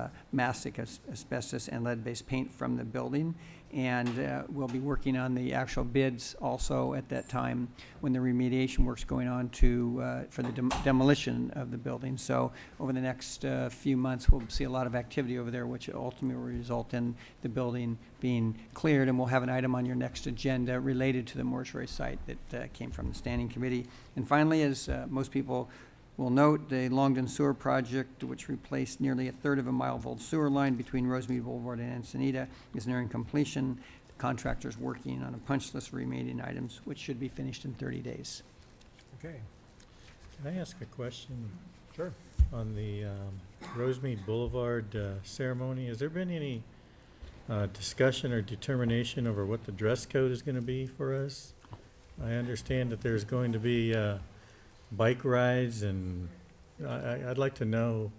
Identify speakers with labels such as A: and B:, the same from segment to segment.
A: uh, mastic as- asbestos and lead-based paint from the building. And uh, we'll be working on the actual bids also at that time when the remediation work's going on to, uh, for the dem- demolition of the building. So over the next uh, few months, we'll see a lot of activity over there, which ultimately will result in the building being cleared. And we'll have an item on your next agenda related to the mortuary site that uh, came from the standing committee. And finally, as uh, most people will note, the Longden Sewer Project, which replaced nearly a third of a mile of old sewer line between Rosemead Boulevard and Encinita, is nearing completion. The Contractor's working on a punch list of remaining items, which should be finished in 30 days.
B: Okay,
C: Can I ask a question
B: sure.
C: on the um, Rosemead Boulevard uh, ceremony? Has there been any uh, discussion or determination over what the dress code is going to be for us? I understand that there's going to be uh, bike rides and I- I- I'd like to know,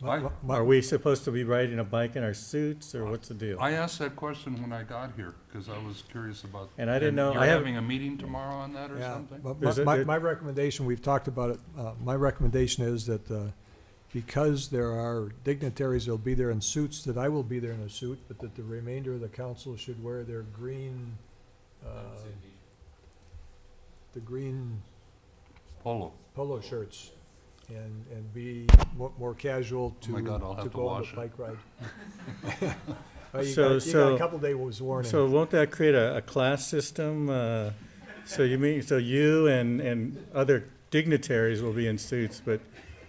B: My-
D: I-
B: my-
C: are we supposed to be riding a bike in our suits or what's the deal?
D: I asked that question when I got here, because I was curious about.
C: And I didn't know-
D: You're
C: I have-
D: having a meeting tomorrow on that or
B: yeah,
D: something?
B: but
C: There's
B: my-
C: a-
B: My,
C: there-
B: my recommendation, we've talked about it, uh, my recommendation is that, uh, because there are dignitaries that'll be there in suits, that I will be there in a suit, but that the remainder of the council should wear their green, uh, the green
D: Polo.
B: polo shirts and, and be mo- more casual
D: Oh
B: to,
D: my God, I'll have
B: to
D: to
B: go on
D: wash
B: the
D: it.
B: bike ride. Uh, You
C: So-
B: got, you got
C: so-
B: a couple day was warning.
C: So won't that create a, a class system? uh, So you mean, so you and, and other dignitaries will be in suits, but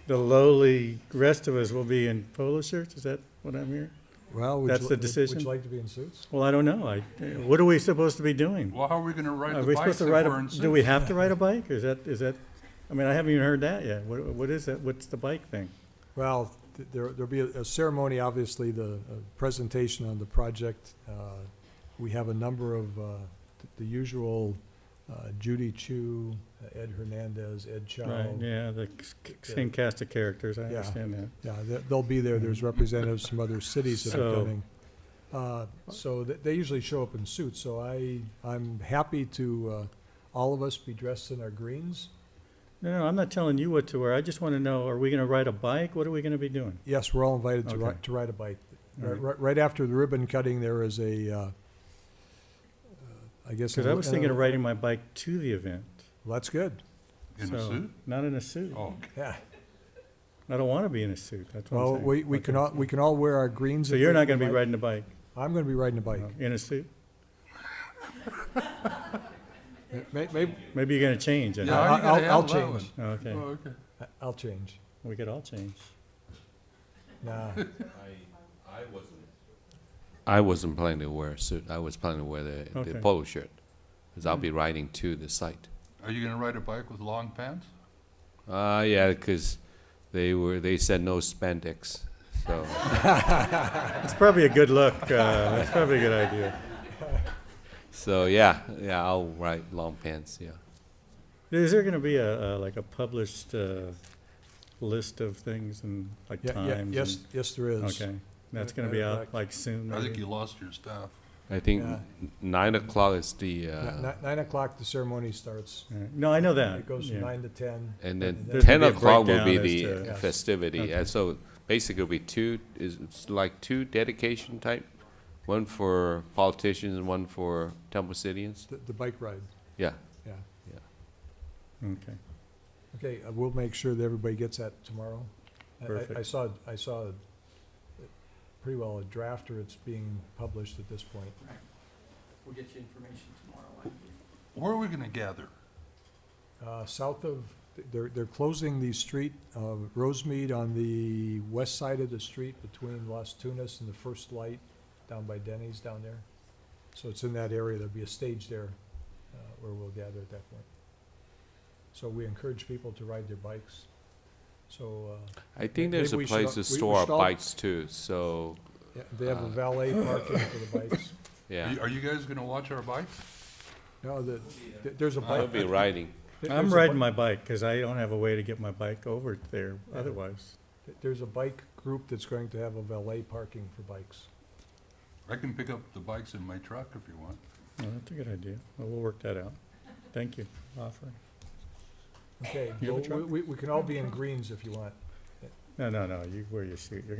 C: the lowly rest of us will be in polo shirts? Is that what I'm hearing?
B: Well, would
C: that's
B: you,
C: the
B: li- would
C: decision?
B: you like to be in suits?
C: Well, I don't know. I, what are we supposed to be doing?
D: Well, how are we gonna ride
C: Are
D: the
C: we
D: bikes
C: supposed
D: if
C: to ride
D: we're in
C: a,
D: suits?
C: do we have to ride a bike? Is that, is that, I mean, I haven't even heard that yet. What, what is that? What's the bike thing?
B: Well, th- there, there'll be a a ceremony, obviously, the uh, presentation on the project. Uh, We have a number of, uh, th- the usual uh, Judy Chu, uh, Ed Hernandez, Ed
C: Right,
B: Chow.
C: yeah, the c- c- same cast of characters. I
B: Yeah.
C: understand that.
B: Yeah, they- they'll be there. There's representatives from other cities that are
C: So-
B: coming. Uh, So th- they usually show up in suits, so I, I'm happy to, uh, all of us be dressed in our greens.
C: No, no, I'm not telling you what to wear. I just want to know, are we going to ride a bike? What are we going to be doing?
B: Yes, we're all invited to
C: Okay.
B: ride, to ride a bike.
C: All
B: Right,
C: right.
B: right- right after the ribbon cutting, there is a, uh, uh, I guess.
C: Because I was thinking of
B: Well,
C: riding my bike to the event.
B: That's good.
D: In a
C: so-
D: suit?
C: Not in a suit.
D: Oh,
B: Yeah.
C: I don't want to be in a suit, that's what I'm
B: Well,
C: saying.
B: we, we can all, we can all wear our greens.
C: So
B: if
C: you're
B: we-
C: not going to be
B: we might-
C: riding a bike,
B: I'm gonna be riding a bike.
C: no, in a suit?
B: May, may,
C: Maybe you're going to change, I
D: yeah,
C: know.
D: how are you
B: I'll-
D: gonna
B: I'll
D: handle that
B: change.
C: Oh, Okay,
D: one? Oh, okay.
B: I'll change.
C: we could all change.
B: Nah.
E: I wasn't planning to wear a suit. I was planning to wear the, the
C: Okay. Mm.
E: polo shirt, because I'll be riding to the site.
D: Are you gonna ride a bike with long pants?
E: Uh, yeah, because they were, they said no spandex, so.
C: It's probably a good look, uh, that's probably a good idea.
E: So, yeah, yeah, I'll ride long pants, yeah.
C: Is there going to be a, a- like a published uh, list of things and like
B: Yeah, yeah,
C: times?
B: yes,
C: and-
B: yes, there is.
C: Okay, that's going to
B: Matter
C: be
B: of
C: out
B: fact-
C: like soon?
D: I think
C: maybe?
D: you lost your staff.
E: I think
B: Yeah.
E: n- nine o'clock is the,
B: Ni-
E: uh,
B: ni- Nine o'clock, the ceremony starts.
C: All right. No, I know that.
B: It goes
C: yeah.
B: from nine to ten.
E: and then
B: there's
E: ten
C: gonna be a
E: o'clock will be
C: breakdown as to-
E: the
B: Yes.
E: festivity.
C: Okay.
E: And so basically it'll be two, is, it's like two dedication type, one for politicians and one for Temple Cityans,
B: The, the bike ride,
E: yeah.
B: yeah.
C: Okay,
B: Okay, uh, we'll make sure that everybody gets that tomorrow. I- I- I
C: Perfect.
B: saw, I saw uh, pretty well a draft or it's being published at this point.
A: We'll get you information tomorrow.
D: Where are we gonna gather?
B: Uh, South of, they're, they're closing the street, uh, Rosemead on the west side of the street between Las Tunas and the First Light down by Denny's down there. So it's in that area. There'll be a stage there uh, where we'll gather at that point. So we encourage people to ride their bikes. So uh,
E: I think there's a
B: Maybe we should
E: place
B: al- we-
E: to
B: we
E: store our
B: should al-
E: bikes too, so,
B: yeah, they have a
E: Uh.
B: valet parking for the bikes.
E: yeah.
D: Are you- are you guys gonna watch our bikes?
B: No, the, th- there's a
E: I'll
B: bike.
E: be riding.
B: there-
C: I'm
B: there's a
C: riding my
B: bi-
C: bike because I don't have a way to get my bike over there
B: Yeah.
C: otherwise.
B: There's a bike group that's going to have a valet parking for bikes.
D: I can pick up the bikes in my truck if you want.
C: Oh, that's a good idea. Well, we'll work that out. Thank you for offering.
B: Okay,
C: You have a
B: well,
C: truck?
B: we, we- we can all be in greens if you want.
C: No, no, no, you wear your suit, you're gonna